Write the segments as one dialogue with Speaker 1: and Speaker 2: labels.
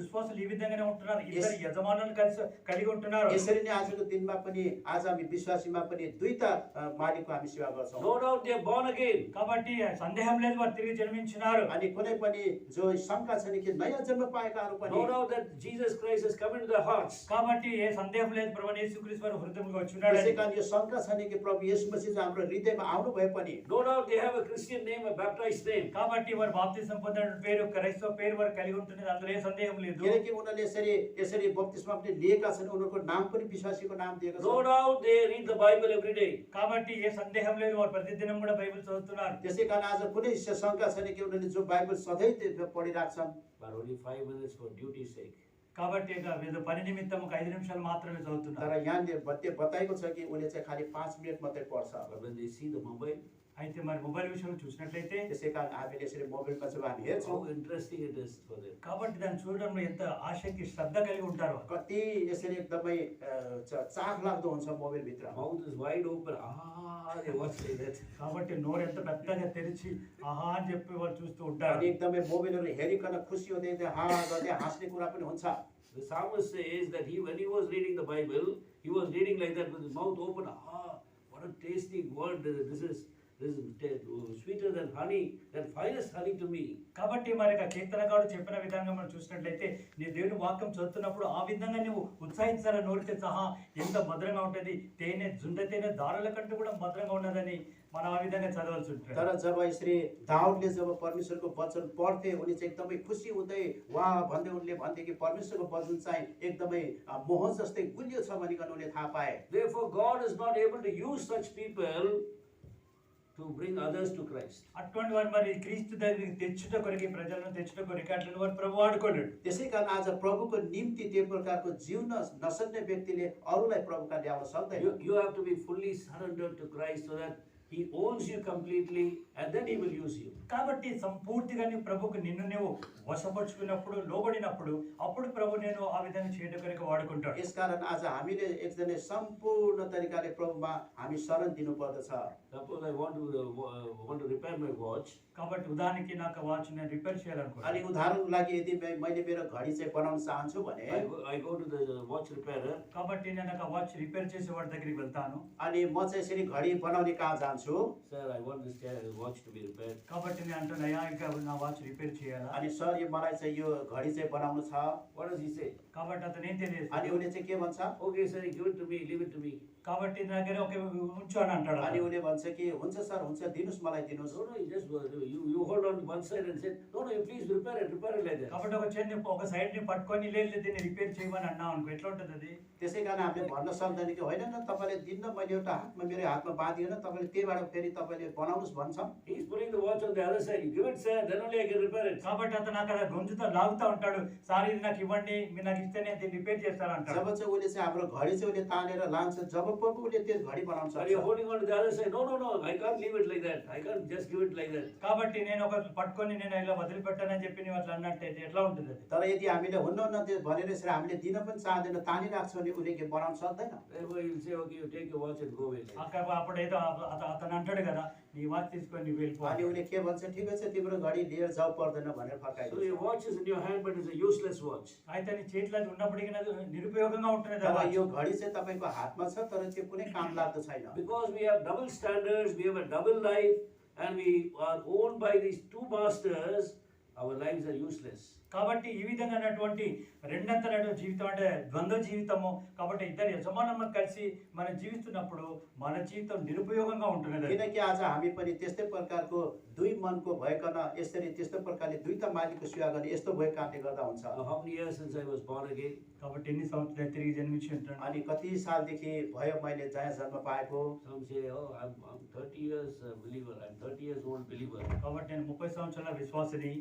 Speaker 1: విశ్వాసులు ఈ విధంగానే ఉంటున్నారు ఇద్దరు
Speaker 2: Yes.
Speaker 1: యజమానులు కలిసి కలిగి ఉంటున్నారు
Speaker 2: यसरी नै आजको दिनमा पनि आज हामी विश्वासीमा पनि दुईटा अ, मालिकको हामी सेवा गर्छौँ
Speaker 3: No doubt they are born again.
Speaker 1: కాబట్టి సందేహం లేదు వారు తిరిగి జన్మించినారు
Speaker 2: अनि कुनै पनि जो शङ्का छैन कि नयाँ जन्म पाएकाहरू
Speaker 3: No
Speaker 2: पनि
Speaker 3: doubt that Jesus Christ has come into their hearts.
Speaker 1: కాబట్టి ఏ సందేహం లేదు ప్రభు యేసుక్రీస్తు వారు హృదయంలో
Speaker 2: त्यसै
Speaker 1: వచ్చినాడు
Speaker 2: कारण यो शङ्का छैन कि प्रभु यस मसिज हाम्रो हृदयमा आउनु भए पनि
Speaker 3: No doubt they have a Christian name, a baptized name.
Speaker 1: కాబట్టి వారు బాప్తిసం పొందిన పేరు క్రైస్తవ పేరు వారు కలిగి ఉంటుంది అందులో ఏ సందేహం లేదు
Speaker 2: किनकि उनीहरूले यसरी यसरी बप्तिस्मा पनि लिएका छन् उनीहरूको नाम पनि विश्वासीको नाम दिएको
Speaker 3: No
Speaker 2: छ
Speaker 3: doubt they read the Bible every day.
Speaker 1: కాబట్టి ఏ సందేహం లేదు వారు ప్రతిదినం కూడా బైబిల్ చదువుతున్నారు
Speaker 2: त्यसै कारण आज कुनै श- शङ्का छैन कि उनीहरूले जो बाइबल सधैँ त्यो पढिरहेको
Speaker 3: But only five minutes for duty's sake.
Speaker 1: కాబట్టి ఇక వీళ్ళు పని నిమిత్తం ఒక ఐదు నిమిషాలు మాత్రమే
Speaker 2: छन्
Speaker 1: చదువుతున్నారు
Speaker 2: तर यहाँले बत्ते बताएको छ कि उसले चाहिँ खालि पाँच मिनट मात्रै पढ्छ
Speaker 3: But when they see the mobile,
Speaker 1: అయితే మరి మొబైల్ విషయంలో చూసినట్లయితే
Speaker 2: त्यसै कारण हामीले यसरी मोबाइलमा जब हामी हेर्छौँ
Speaker 3: how interesting it is for them.
Speaker 1: కాబట్టి దాన్ని చూడడంలో ఎంత ఆసక్తి శ్రద్ధ కలిగి ఉంటారు
Speaker 2: कति यसरी एकदमै चाख लाग्दो हुन्छ मोबाइलभित्र
Speaker 3: Mouth is wide open. Ah, they watch like that.
Speaker 1: కాబట్టి నోరు ఎంత పెద్దగా తెరిచి ఆహా అని చెప్పి వాళ్ళు చూస్తూ
Speaker 2: अनि
Speaker 1: ఉంటారు
Speaker 2: एकदमै मोबाइलहरू हेरिकन खुसी हुँदै हुँदै हा गर्दै हाँस्ने कुरा पनि हुन्छ
Speaker 3: The psalmist says that he, when he was reading the Bible, he was reading like that with his mouth open. Ah, what a tasty word this is. This is ta- sweeter than honey, than finest honey to me.
Speaker 1: కాబట్టి మరి ఇక కీర్తనకారుడు చెప్పిన విధంగా మనం చూసినట్లయితే నీ దేవుని వాక్యం చదువుతున్నప్పుడు ఆ విధంగా నువ్వు ఉత్సాహించాల నోరితే సహా ఎంత మధురంగా ఉంటుంది తేనె జుండ తేనె దారుల కంటే కూడా మధురంగా ఉన్నదని మనం ఆ విధంగా చదవాల్సి ఉంటుంది
Speaker 2: तर जब यसरी दाउदले जब परमेश्वरको वचन पढ्थे उनी चाहिँ एकदमै खुसी हुँदै वा भन्दै उनले भन्थे कि परमेश्वरको वचन चाहिँ एकदमै अ, मोह जस्तै गुलियो छ भनिकन उनले थाहा पाए
Speaker 3: Therefore, God is not able to use such people to bring others to Christ.
Speaker 1: అటువంటి వారు మరి క్రీస్తు దగ్గరికి తెచ్చుట కొరికి ప్రజలను తెచ్చుట కొరికి అట్లని వారు ప్రభు వాడుకోలేడు
Speaker 2: त्यसै कारण आज प्रभुको निम्ति त्यो प्रकारको जिउन नसक्ने व्यक्तिले अरूलाई प्रभुका ल्याउन सक्दैन
Speaker 3: You, you have to be fully surrendered to Christ so that He owns you completely and then He will use you.
Speaker 1: కాబట్టి సంపూర్తిగా నీ ప్రభుకు నిన్ను నువ్వు వశపరుచుకున్నప్పుడు లోబడినప్పుడు అప్పుడు ప్రభు నేను ఆ విధంగా చేయడం కనుక వాడుకుంటాడు
Speaker 2: यसकारण आज हामीले एकजना सम्पूर्ण तरिकाले प्रभुमा हामी शरण दिनुपर्दछ
Speaker 3: Suppose I want to uh, wa- uh, want to repair my watch.
Speaker 1: కాబట్టి ఉదాహరణకి నాకు వాచ్ నేను రిపేర్ చేయాలనుకున్నాను
Speaker 2: अनि उदाहरणको लागि यदि मै- मैले मेरो घडी चाहिँ बनाउन चाहन्छु भने
Speaker 3: I go, I go to the watch repairer.
Speaker 1: కాబట్టి నేను నాకు ఆ వాచ్ రిపేర్ చేసే వాడి దగ్గరికి వెళ్తాను
Speaker 2: अनि म चाहिँ यसरी घडी बनाउने कहाँ जान्छु
Speaker 3: Sir, I want this ca- watch to be repaired.
Speaker 1: కాబట్టి నేను అంటాను అయ్యా ఇంకా నా వాచ్ రిపేర్ చేయాలా
Speaker 2: अनि सर यो मलाई चाहिँ यो घडी चाहिँ बनाउनु छ
Speaker 3: What does he say?
Speaker 1: కాబట్టి అతను ఏం
Speaker 2: अनि
Speaker 1: తెలియదు
Speaker 2: उसले चाहिँ के भन्छ
Speaker 3: Okay, sir, give it to me, leave it to me.
Speaker 1: కాబట్టి నా దగ్గర ఒక ఉంచు అని అంటాడు
Speaker 2: अनि
Speaker 1: అతను.
Speaker 2: उसले भन्छ कि हुन्छ सर हुन्छ दिनुहोस् मलाई दिनुहोस्
Speaker 3: No, no, you just uh, you, you hold on to one side and say, no, no, you please repair it, repair it like that.
Speaker 1: కాబట్టి ఒక చేతి ఒక సైడ్ ని పట్టుకొని లేదు దీన్ని రిపేర్ చేయమని అన్నా అనుకో ఎట్లా ఉంటుంది అది
Speaker 2: त्यसै कारण हामीले भन्न सक्दैन कि होइन न तपाईँले दिन्न मैले एउटा हातमा मेरो हातमा बाँधिएन तपाईँले त्यहीबाट फेरि तपाईँले बनाउनुहोस् भन्छ
Speaker 3: He's putting the watch on the other side. You give it, sir, then only I can repair it.
Speaker 1: కాబట్టి అతను అక్కడ గొంతుతో లాగుతా ఉంటాడు సార్ ఇది నాకు ఇవ్వండి మీరు నాకు ఇస్తే నేను దీన్ని రిపేర్ చేస్తాను అంటాడు
Speaker 2: जब चाहिँ उसले चाहिँ हाम्रो घडी चाहिँ उसले तानेर लान्छ जब पनि उसले त्यो घडी बनाउन
Speaker 3: Are you
Speaker 2: सक्छ
Speaker 3: holding on to the other side? No, no, no, I can't leave it like that. I can't just give it like that.
Speaker 1: కాబట్టి నేను ఒక పట్టుకొని నేను ఇలా వదిలిపెట్టానని చెప్పి నువ్వు అట్లా అన్నట్టయితే ఎట్లా ఉంటుంది అది
Speaker 2: तर यदि हामीले हुन्न न त्यो भनेर यसरी हामीले दिन पनि चाहँदैन तानिरहेको छ भने उसले के बनाउन सक्दैन
Speaker 3: Therefore, you'll say, okay, you take your watch and go away. like that.
Speaker 1: అక్కడ అప్పుడు ఏదో అత- అత- అతను అంటాడు కదా నీ వాచ్ తీసుకొని నువ్వు వెళ్ళిపో
Speaker 2: अनि उसले के भन्छ ठिकै छ तिम्रो घडी लिएर जाऊ पर्दैन भनेर
Speaker 3: So your
Speaker 2: फर्काइदिन्छ
Speaker 3: watch is in your hand, but it's a useless watch.
Speaker 1: అయితే నీ చేతిలో అది ఉన్నప్పటికీ అది నిరుపయోగంగా ఉంటుంది
Speaker 2: तर
Speaker 1: అలా.
Speaker 2: यो घडी चाहिँ तपाईँको हातमा छ तर त्यो कुनै काम लाग्दो छैन
Speaker 3: Because we have double standards, we have a double life, and we are owned by these two masters, our lives are useless.
Speaker 1: కాబట్టి ఈ విధంగా అన్నటువంటి రెండంతల జీవితం అంటే ద్వంద్వ జీవితము కాబట్టి ఇద్దరు యజమానులు కలిసి మనం జీవిస్తున్నప్పుడు మన జీవితం నిరుపయోగంగా ఉంటుంది అది.
Speaker 2: किनकि आज हामी पनि त्यस्तै प्रकारको दुई मनको भइकन यसरी त्यस्तो प्रकारले दुईटा मालिकको सेवा गर्ने यस्तो भएको कारणले गर्दा हुन्छ
Speaker 3: Now, how many years since I was born again?
Speaker 1: కాబట్టి ఎన్ని సంవత్సరాలు తిరిగి జన్మించి ఉంటాను
Speaker 2: अनि कति सालदेखि भयो मैले जहाँ जन्म पाएको
Speaker 3: Some say, oh, I'm, I'm 30 years uh, believer, I'm 30 years old believer.
Speaker 1: కాబట్టి నేను ముప్పై సంవత్సరాల విశ్వాసని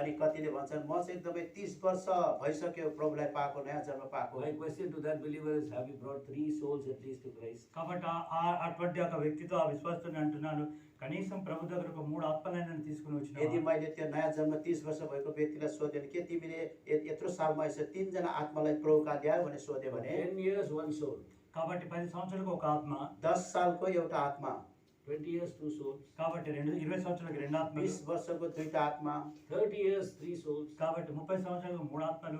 Speaker 2: अनि कतिले भन्छन् म चाहिँ एकदमै तिस वर्ष भइसक्यो प्रभुलाई पाएको नयाँ जन्म पाएको
Speaker 3: My question to that believer is, have you brought three souls at least to Christ?
Speaker 1: కాబట్టి ఆ- ఆ- అటువంటి ఒక వ్యక్తితో ఆ విశ్వాసతో నేను అంటున్నాను కనీసం ప్రభు దగ్గర ఒక మూడు ఆత్మలైన తీసుకుని
Speaker 2: यदि
Speaker 1: వచ్చిన
Speaker 2: मैले त्यो नयाँ जन्म तिस वर्ष भएको व्यक्तिलाई सोधेँ भने के तिमीले य- यत्रो सालमा यसो तिनजना आत्मालाई प्रभुका ल्यायो भने सोध्यो भने
Speaker 3: 10 years, one soul.
Speaker 1: కాబట్టి పది సంవత్సరాలకు ఒక ఆత్మ
Speaker 2: दस सालको एउटा आत्मा
Speaker 3: 20 years, two souls.
Speaker 1: కాబట్టి రెండు ఇరవై సంవత్సరాలకు రెండు ఆత్మలు
Speaker 2: बिस वर्षको दुईटा आत्मा
Speaker 3: 30 years, three souls.
Speaker 1: కాబట్టి ముప్పై సంవత్సరాలకు మూడు ఆత్మలు